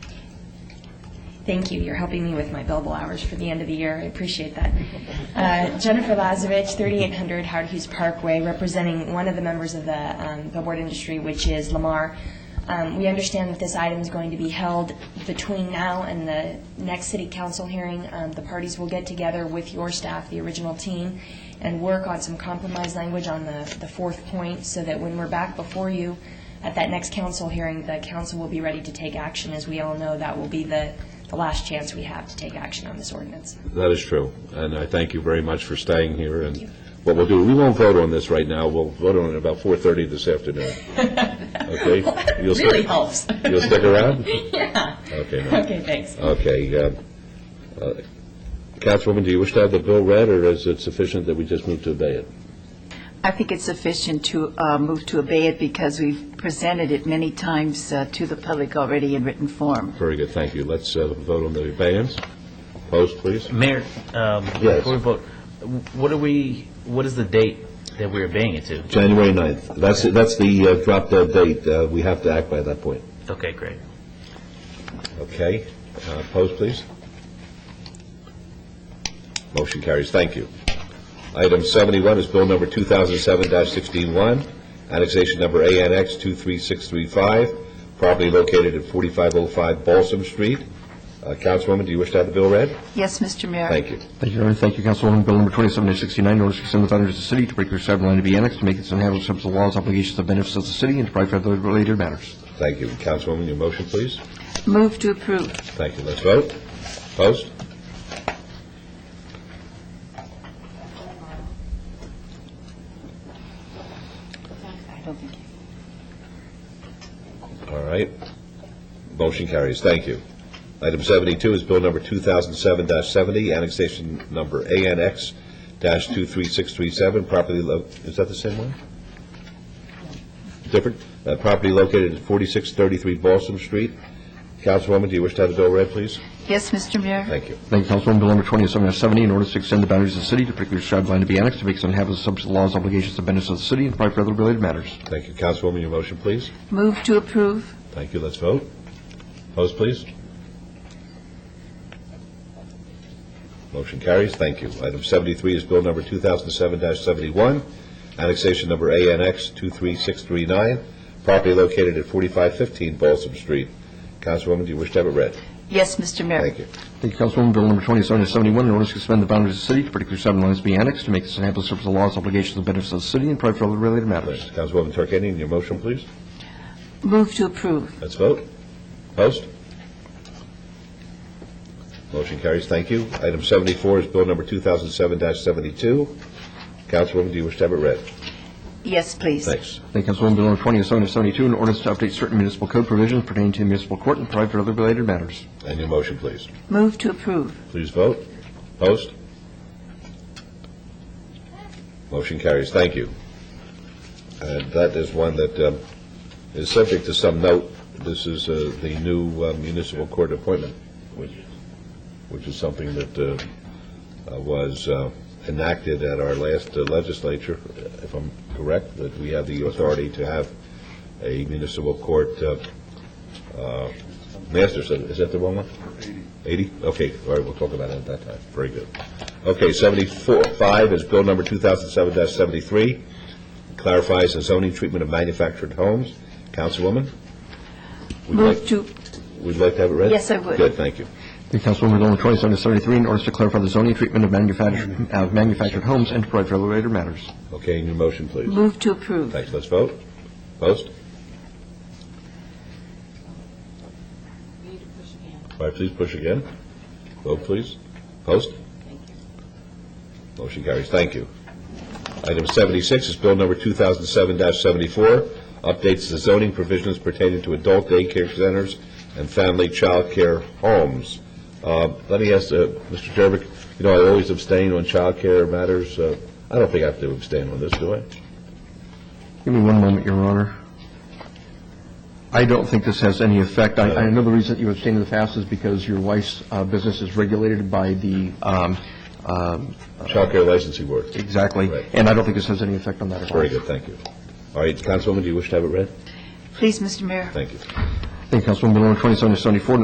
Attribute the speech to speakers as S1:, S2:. S1: Thank you. You're helping me with my billable hours for the end of the year. I appreciate that. Uh, Jennifer Lazovich, 3800 Howard Hughes Parkway, representing one of the members of the um, billboard industry, which is Lamar. Um, We understand that this item is going to be held between now and the next city council hearing. Um, The parties will get together with your staff, the original team, and work on some compromise language on the the fourth point, so that when we're back before you at that next council hearing, the council will be ready to take action. As we all know, that will be the the last chance we have to take action on this ordinance.
S2: That is true, and I thank you very much for staying here, and what we'll do, we won't vote on this right now, we'll vote on it about 4:30 this afternoon. Okay? You'll stick-
S1: Really helps.
S2: You'll stick around?
S1: Yeah.
S2: Okay, no.
S1: Okay, thanks.
S2: okay. uh, uh, Councilwoman, do you wish to have the bill read, or is it sufficient that we just move to obey it?
S3: I think it's sufficient to uh, move to obey it because we've presented it many times uh, to the public already in written form.
S2: Very good, thank you. Let's uh, vote on the abeyance. Post, please.
S4: Mayor, um,
S2: Yes.
S4: before we vote, what are we, what is the date that we're obeying it to?
S2: January 9th. That's, that's the uh, drop dead date. Uh, We have to act by that point.
S4: Okay, great.
S2: Okay. Uh, Post, please. Motion carries. Thank you. Item 71 is Bill Number 2007-16-1, Annexation Number ANX 23635, property located at 4505 Balsam Street. Uh, Councilwoman, do you wish to have the bill read?
S3: Yes, Mr. Mayor?
S2: Thank you.
S5: Thank you, Your Honor. Thank you, Councilwoman. Bill number 2769, orders to extend the boundaries of the city to break clear several line to be annexed to make its inhabitants subject to the laws, obligations, and benefits of the city and to provide for other related matters.
S2: Thank you. Councilwoman, your motion, please.
S3: Move to approve.
S2: Thank you. Let's vote. Post? All right. Motion carries. Thank you. Item 72 is Bill Number 2007-70, Annexation Number ANX-23637, property, lo- is that the same one? Different? Uh, Property located at 4633 Balsam Street. Councilwoman, do you wish to have the bill read, please?
S3: Yes, Mr. Mayor?
S2: Thank you.
S5: Thank you, Councilwoman. Bill number 2770, an orders to extend the boundaries of the city to break clear several line to be annexed to make its inhabitants subject to the laws, obligations, and benefits of the city and to provide for other related matters.
S2: Thank you. Councilwoman, your motion, please.
S3: Move to approve.
S2: Thank you. Let's vote. Opposed, please? Motion carries. Thank you. Item 73 is Bill Number 2007-71, Annexation Number ANX 23639, property located at 4515 Balsam Street. Councilwoman, do you wish to have it read?
S3: Yes, Mr. Mayor?
S2: Thank you.
S5: Thank you, Councilwoman. Bill number 2771, an orders to extend the boundaries of the city to break clear several lines to be annexed to make its inhabitants subject to the laws, obligations, and benefits of the city and to provide for other related matters.
S2: Councilwoman Tarkanian, your motion, please.
S3: Move to approve.
S2: Let's vote. Post. Motion carries. Thank you. Item 74 is Bill Number 2007-72. Councilwoman, do you wish to have it read?
S3: Yes, please.
S2: Thanks.
S5: Thank you, Councilwoman. Bill number 2772, an orders to update certain municipal code provisions pertaining to municipal court and provide for other related matters.
S2: And your motion, please.
S3: Move to approve.
S2: Please vote. Post. Motion carries. Thank you. And that is one that um, is subject to some note. This is uh, the new uh, municipal court appointment, which which is something that uh, uh, was uh, enacted at our last uh, legislature, if I'm correct, that we have the authority to have a municipal court uh, uh, master. So Is that the wrong one? 80? Okay, all right, we'll talk about it at that time. Very good. Okay, 74, 5 is Bill Number 2007-73, clarifies the zoning treatment of manufactured homes. Councilwoman? would you
S3: Move
S2: like-
S3: to,
S2: Would you like to have it read?
S3: Yes, I would.
S2: Good, thank you.
S5: Thank you, Councilwoman. Bill number 2773, in order to clarify the zoning treatment of manufactured, of manufactured homes and to provide for related matters.
S2: Okay, and your motion, please.
S3: move to approve.
S2: Thanks, let's vote. Post? All right, please push again. Vote, please. Post? Motion carries, thank you. Item 76 is Bill Number 2007-74, updates the zoning provisions pertaining to adult daycare centers and family child care homes. Uh, Let me ask, uh, Mr. Jervik, you know, I always abstain on child care matters. Uh, I don't think I have to abstain on this, do I?
S5: Give me one moment, Your Honor. I don't think this has any effect. I, I know the reason that you abstained in the past is because your wife's uh, business is regulated by the, um, um,
S2: Child Care Licensing Board.
S5: exactly,
S2: Right.
S5: and I don't think this has any effect on that at all.
S2: Very good, thank you. All right, Councilwoman, do you wish to have it read?
S3: Please, Mr. Mayor?
S2: Thank you.
S5: Thank you, Councilwoman. Bill number 2774,